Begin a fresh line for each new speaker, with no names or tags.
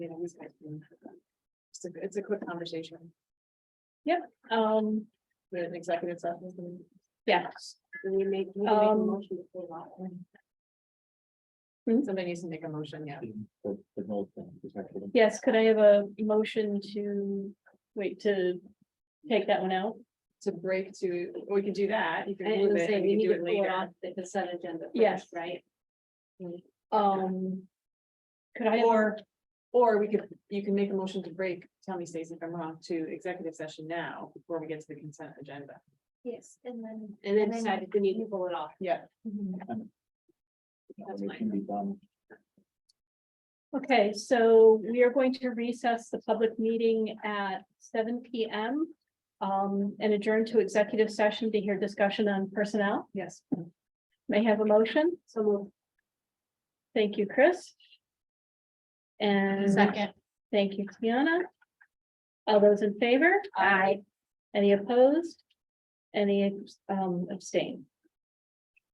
you know, these guys can- It's a, it's a quick conversation. Yeah, um, we're in executive session. Yeah. We make, we
make a
Um,
motion to pull out.
hmm.
Somebody needs to make a motion, yeah.
for- for no thing, is that correct?
Yes, could I have a motion to, wait, to take that one out?
To break to, we could do that. You could
I
move
was
it,
saying,
and
we
you
need
could
to
do it
pull it
later.
off the consent agenda
Yes.
first, right?
Um. Could I? have a-
Or, or we could, you can make a motion to break, tell me Stacy if I'm wrong, to executive session now before we get to the consent agenda.
Yes, and then. And then
and then-
decide if we need to pull it off.
Yeah.
Mm-hmm.
Or It can be done.
Okay, so we are going to recess the public meeting at seven P M. Um, and adjourn to executive session to hear discussion on personnel.
Yes.
May I have a motion.
So move.
Thank you, Chris. And. Thank you, Tiana. All those in favor?
Aye.
Any opposed? Any um abstain?